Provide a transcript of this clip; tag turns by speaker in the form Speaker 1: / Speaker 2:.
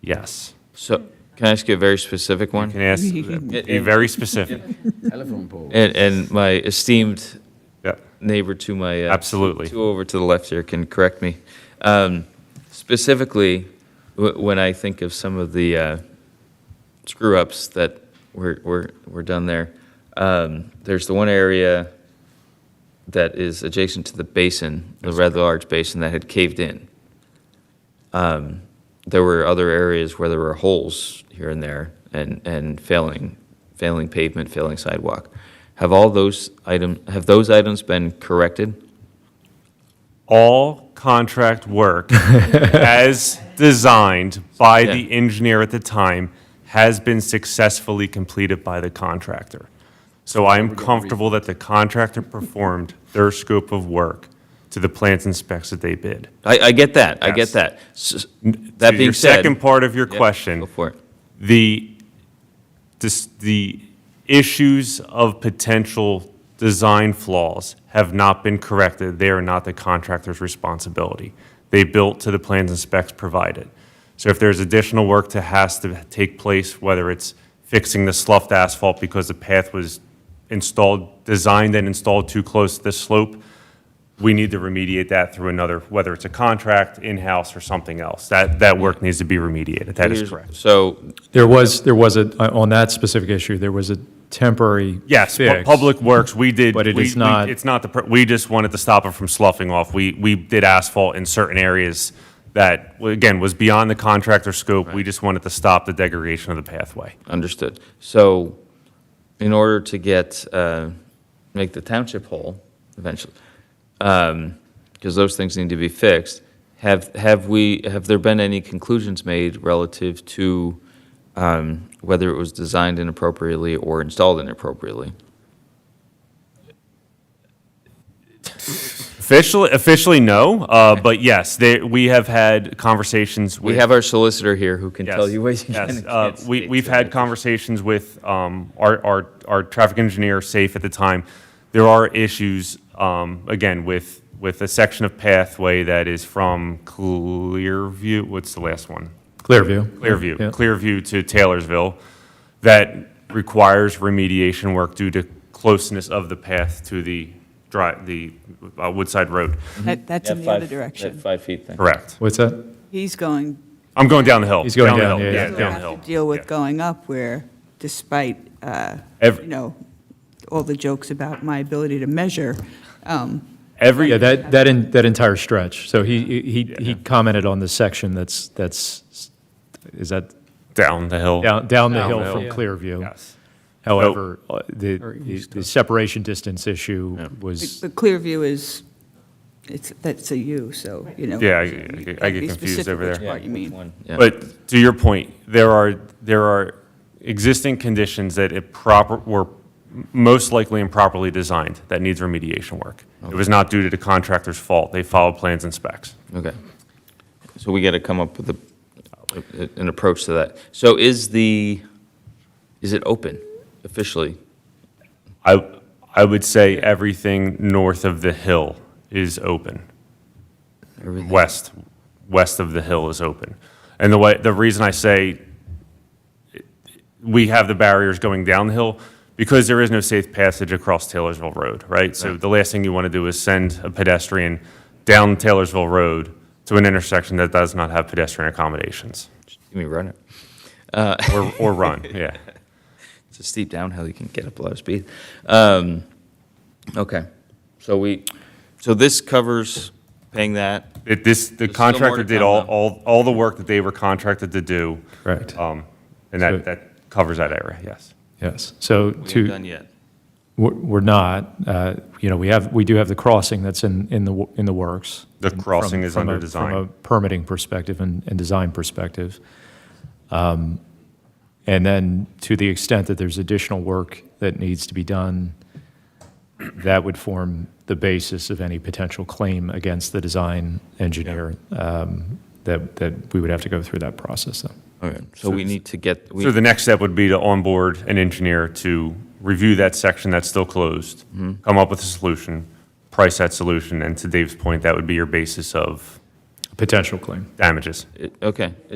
Speaker 1: Yes.
Speaker 2: So, can I ask you a very specific
Speaker 1: Can
Speaker 2: one?
Speaker 1: I ask, be very specific.
Speaker 3: Telephone pole.
Speaker 2: And, and my esteemed
Speaker 1: Yep.
Speaker 2: neighbor to my. uh,
Speaker 1: Absolutely.
Speaker 2: Two over to the left here can correct me. Um, Specifically, wh- when I think of some of the uh, screw-ups that were, were, were done there, um, there's the one area that is adjacent to the basin, the rather large basin that had caved in. Um, There were other areas where there were holes here and there and, and failing, failing pavement, failing sidewalk. Have all those item, have those items been corrected?
Speaker 1: All contract work as designed by the
Speaker 2: Yeah.
Speaker 1: engineer at the time has been successfully completed by the contractor. So I am comfortable that the contractor performed their scope of work to the plans and specs that they bid.
Speaker 2: I, I get that, I
Speaker 1: Yes.
Speaker 2: get that. S- That
Speaker 1: To
Speaker 2: being
Speaker 1: Your
Speaker 2: said.
Speaker 1: second part of your
Speaker 2: Yep,
Speaker 1: question.
Speaker 2: Go for it.
Speaker 1: the, this, the issues of potential design flaws have not been corrected. They are not the contractor's responsibility. They built to the plans and specs provided. So if there's additional work that has to take place, whether it's fixing the sloughed asphalt because the path was installed, designed and installed too close to the slope, we need to remediate that through another, whether it's a contract, in-house, or something else. That, that work needs to be remediated. That is
Speaker 2: Here's-
Speaker 1: correct.
Speaker 2: So,
Speaker 4: There was, there was a, uh, on that specific issue, there was a temporary
Speaker 1: Yes, pu-
Speaker 4: fix.
Speaker 1: Public Works, we did.
Speaker 4: But it
Speaker 1: we-
Speaker 4: is
Speaker 1: we-
Speaker 4: not-
Speaker 1: It's not the, pr- we just wanted to stop it from sloughing off. We, we did asphalt in certain areas that, well, again, was beyond the contractor scope. We just wanted to stop the degradation of the pathway.
Speaker 2: understood. So, in order to get, uh, make the township whole eventually, because those things need to be fixed, have, have we, have there been any conclusions made relative to um, whether it was designed inappropriately or installed inappropriately?
Speaker 1: Officially, officially, no, uh, but yes, they, we have had conversations with.
Speaker 2: We have our solicitor here who can tell
Speaker 1: Yes,
Speaker 2: you what you
Speaker 1: yes.
Speaker 2: can and
Speaker 1: Uh,
Speaker 2: can't
Speaker 1: we,
Speaker 2: speak
Speaker 1: we've
Speaker 2: to.
Speaker 1: had conversations with um, our, our, our traffic engineer, Safe, at the time. There are issues, um, again, with, with a section of pathway that is from Clearview, what's the last one?
Speaker 4: Clearview.
Speaker 1: Clearview,
Speaker 4: Yeah.
Speaker 1: Clearview to Taylorsville, that requires remediation work due to closeness of the path to the dri, the uh, Woodside Road.
Speaker 5: That, that's
Speaker 2: That
Speaker 5: in the
Speaker 2: Mm-hmm. five-
Speaker 5: other
Speaker 2: That
Speaker 5: direction.
Speaker 2: five feet thing.
Speaker 1: Correct.
Speaker 4: What's that?
Speaker 5: He's going,
Speaker 1: I'm going down the hill.
Speaker 4: He's going
Speaker 1: the
Speaker 4: down,
Speaker 1: hill,
Speaker 4: yeah, yeah.
Speaker 5: he'll
Speaker 1: down the hill.
Speaker 5: have to deal
Speaker 1: Yeah.
Speaker 5: with going up where despite, uh,
Speaker 1: Every-
Speaker 5: you know, all the jokes about my ability to measure, um,
Speaker 1: Every,
Speaker 4: Yeah, that, that, en- that entire stretch. So he, he, he commented on the section that's, that's, is that
Speaker 1: down the hill.
Speaker 4: down, down the hill
Speaker 1: the
Speaker 4: from
Speaker 1: hill.
Speaker 4: Clearview?
Speaker 1: Yes. Oh,
Speaker 4: However, uh, the, the- the separation distance issue was,
Speaker 5: the clear view is, it's, that's a U, so, you know.
Speaker 1: Yeah, I- I
Speaker 5: you
Speaker 1: get-
Speaker 5: gotta
Speaker 1: I
Speaker 5: be
Speaker 1: get confused
Speaker 5: specific
Speaker 1: over
Speaker 5: which
Speaker 1: there.
Speaker 5: part you mean.
Speaker 2: One, yeah.
Speaker 1: But to your point, there are, there are existing conditions that it proper, were most likely improperly designed that needs remediation work. It was not due to the contractor's fault. They followed plans and specs.
Speaker 2: Okay. So we got to come up with a, an approach to that. So is the, is it open officially?
Speaker 1: I, I would say everything north of the hill is open.
Speaker 2: Everything?
Speaker 1: west, west of the hill is open. And the way, the reason I say we have the barriers going down the hill, because there is no safe passage across Taylorsville Road, right? So the last thing you want to do is send a pedestrian down Taylorsville Road to an intersection that does not have pedestrian accommodations,
Speaker 2: Let me run it.
Speaker 1: or, or run, yeah.
Speaker 2: It's a steep downhill, you can get up a lot of speed. Um, Okay, so we, so this covers paying that?
Speaker 1: It, this, the
Speaker 2: still more to
Speaker 1: contractor did
Speaker 2: come,
Speaker 1: all,
Speaker 2: though.
Speaker 1: all, all the work that they were contracted to do.
Speaker 4: Correct.
Speaker 1: Um, And
Speaker 4: So-
Speaker 1: that, that covers that area, yes.
Speaker 4: yes. So
Speaker 2: We
Speaker 4: to.
Speaker 2: ain't done yet.
Speaker 4: We're we're not. Uh, You know, we have, we do have the crossing that's in, in the, wo- in the works.
Speaker 1: The
Speaker 4: And from-
Speaker 1: crossing is
Speaker 4: from a-
Speaker 1: under design.
Speaker 4: From a permitting perspective and, and design perspective. Um, And then to the extent that there's additional work that needs to be done, that would form the basis of any potential claim against the design engineer um, that, that we would have to go through that process though.
Speaker 2: All right, so we need to get, we-
Speaker 1: So the next step would be to onboard an engineer to review that section that's still closed, come up with a solution, price that solution, and to Dave's point, that would be your basis of
Speaker 4: Potential claim.
Speaker 1: damages.
Speaker 2: it- okay,